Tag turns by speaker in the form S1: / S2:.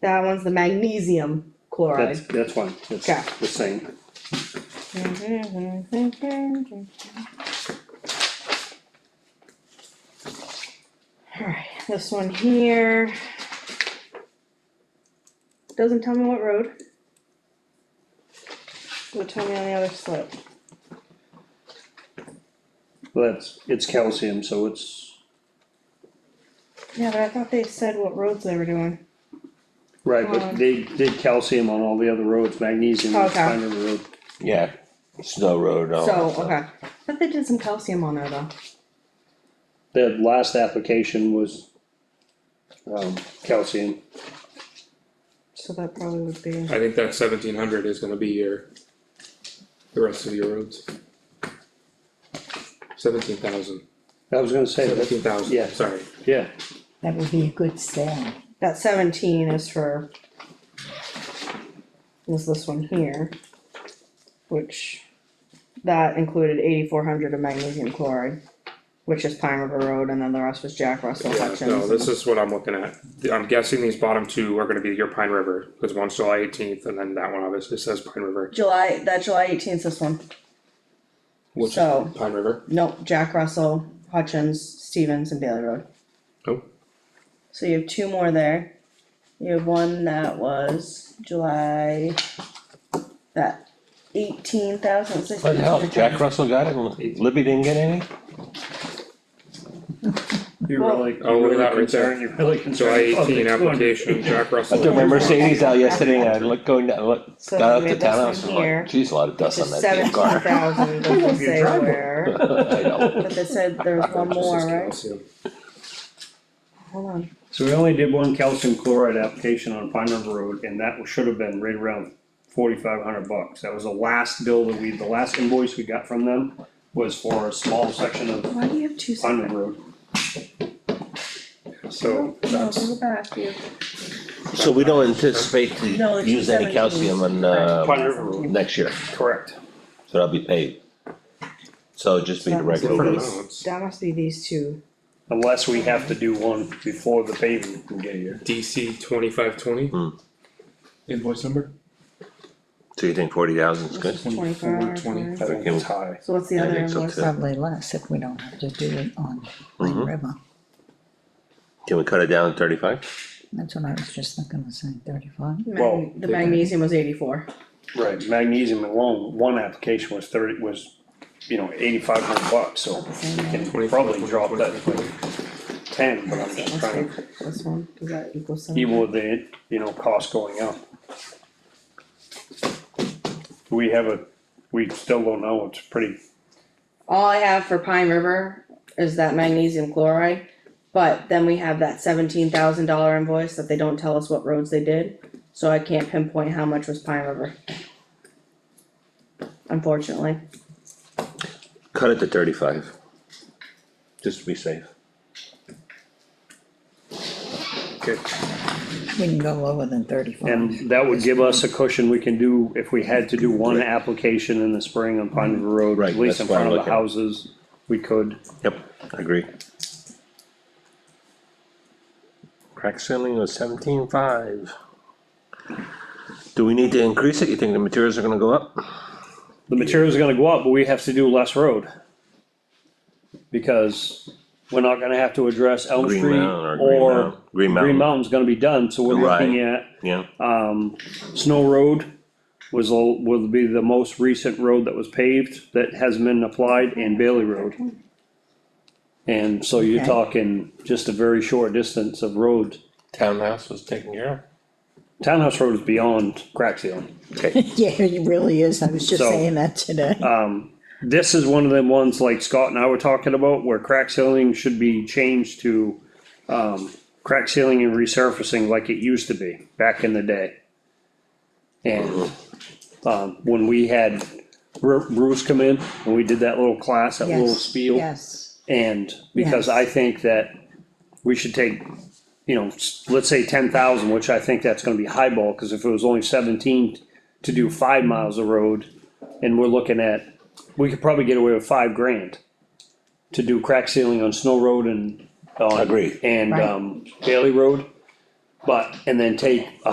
S1: That one's the magnesium
S2: That's,
S1: chloride.
S2: that's fine, that's
S1: Okay.
S2: the same.
S1: Alright, this one here. Doesn't tell me what road. Will tell me on the other slope.
S2: Well, that's, it's calcium, so it's,
S1: Yeah, but I thought they said what roads they were doing.
S2: right, but
S1: Um.
S2: they did calcium on all the other roads, magnesium is
S1: Okay.
S2: kind of a road.
S3: Yeah, snow road, all that
S1: So,
S3: stuff.
S1: okay, but they did some calcium on there though.
S2: The last application was, um, calcium.
S1: So that probably would be,
S4: I think that seventeen hundred is gonna be your, the rest of your roads. Seventeen thousand.
S2: I was gonna say, that,
S4: Seventeen thousand.
S2: yeah.
S4: sorry,
S2: yeah,
S5: That would be a good sale.
S1: that seventeen is for. Is this one here? Which, that included eighty-four hundred of magnesium chloride, which is Pine River Road, and then the rest was Jack Russell
S4: yeah,
S1: Hutchins.
S4: no, this is what I'm looking at, I'm guessing these bottom two are gonna be your Pine River, cause one's July eighteenth, and then that one obviously says Pine River.
S1: July, that July eighteenth, this one,
S4: Which
S1: So-
S4: Pine River,
S1: nope, Jack Russell, Hutchins, Stevens and Bailey Road.
S4: oh,
S1: So you have two more there. You have one that was July, that eighteen thousand sixty.
S3: What the hell, Jack Russell got it, and Libby didn't get any?
S2: you
S1: Well-
S2: really,
S4: Oh,
S2: you
S4: look at
S2: really
S4: that right
S2: concerned,
S4: there.
S2: you're really
S4: July
S2: concerned. about the
S4: eighteen
S2: 200.
S4: application, Jack
S3: I
S4: Russell.
S3: took my Mercedes out yesterday and I looked going down, looked,
S1: So
S3: got out
S1: we
S3: to
S1: have this
S3: town, I
S1: one
S3: was
S1: here,
S3: like, geez, a lot of dust on that damn
S1: Seventeen
S3: car.
S1: thousand, doesn't say
S2: driveway.
S1: where,
S3: I know.
S1: but they said there was one more,
S4: Just
S1: right?
S4: calcium.
S1: Hold on,
S2: So we only did one calcium chloride application on Pine River Road, and that should have been right around forty-five hundred bucks. That was the last bill that we, the last invoice we got from them was for a small section of
S1: why do you have two
S2: Pine
S1: separate?
S2: River Road.
S4: So,
S1: No,
S4: that's,
S1: go back, you,
S3: So we don't anticipate
S1: No,
S3: to
S1: it's
S3: use
S1: 17.
S3: any calcium on, uh,
S2: Pine River Road,
S3: next year,
S2: correct.
S3: so that'll be paid. So it'll just be the regular
S4: different
S3: road.
S4: amounts,
S1: that must be these two,
S2: Unless we have to do one before the paving can get here.
S4: DC twenty-five twenty.
S3: Hmm.
S4: Invoice number?
S3: So you think forty thousand is good?
S1: twenty-four,
S4: twenty.
S2: I think it's high.
S1: so what's the
S3: I
S1: other
S3: think so
S1: invoice?
S3: too.
S5: Probably less if we don't have to do it on Plain
S2: Mm-hmm.
S3: Mhm.
S5: River.
S3: Can we cut it down to thirty-five?
S5: That's what I was just thinking of saying, thirty-five.
S1: Mag-
S2: Well,
S1: The
S4: they-
S1: magnesium was eighty-four,
S2: Right, magnesium alone, one application was thirty, was, you know, eighty-five hundred bucks, so we can probably drop that to ten, but I'm just
S1: that
S2: trying to
S1: must be this one, does that equal seven?
S2: even with the, you know, cost going up. We have a, we still don't know, it's pretty,
S1: All I have for Pine River is that magnesium chloride, but then we have that seventeen thousand dollar invoice that they don't tell us what roads they did. So I can't pinpoint how much was Pine River. Unfortunately,
S3: Cut it to thirty-five. Just to be safe.
S5: We can go lower than thirty-five.
S2: and that would give us a cushion, we can do, if we had to do one application in the spring on Pine River Road,
S3: Right,
S2: at least in
S3: that's what
S2: front
S3: I'm
S2: of the
S3: looking at.
S2: houses, we could.
S3: Yep, I agree. Crack ceiling was seventeen five. Do we need to increase it? You think the materials are gonna go up?
S2: The material's gonna go up, but we have to do less road. Because we're not gonna have to address Elm
S3: Green
S2: Street
S3: Mountain or Green
S2: or
S3: Mountain- Green
S2: Green
S3: Mountain.
S2: Mountain's gonna be done, so we're looking at
S3: Yeah,
S2: um, Snow Road was, the- will be the most recent road that was paved that hasn't been applied, and Bailey Road. And so you're
S5: Okay.
S2: talking just a very short distance of road.
S3: townhouse was taken care
S2: Townhouse Road is beyond crack sealing.
S5: Yeah, it really is. I was just
S2: So,
S5: saying that today.
S2: Um, this is one of the ones like Scott and I were talking about where crack sealing should be changed to, um, crack sealing and resurfacing like it used to be back in the day. And, um, when we had Ru- Bruce come in and we did that little class, that little
S5: Yes,
S2: spiel.
S5: Yes,
S2: And because
S5: Yes.
S2: I think that we should take, you know, s- let's say ten thousand, which I think that's gonna be highball, cause if it was only seventeen to do five miles of road, and we're looking at, we could probably get away with five grand to do crack sealing on Snow Road and, on
S3: Agreed.
S2: And,
S5: Right.
S2: um, Bailey Road, but, and then take a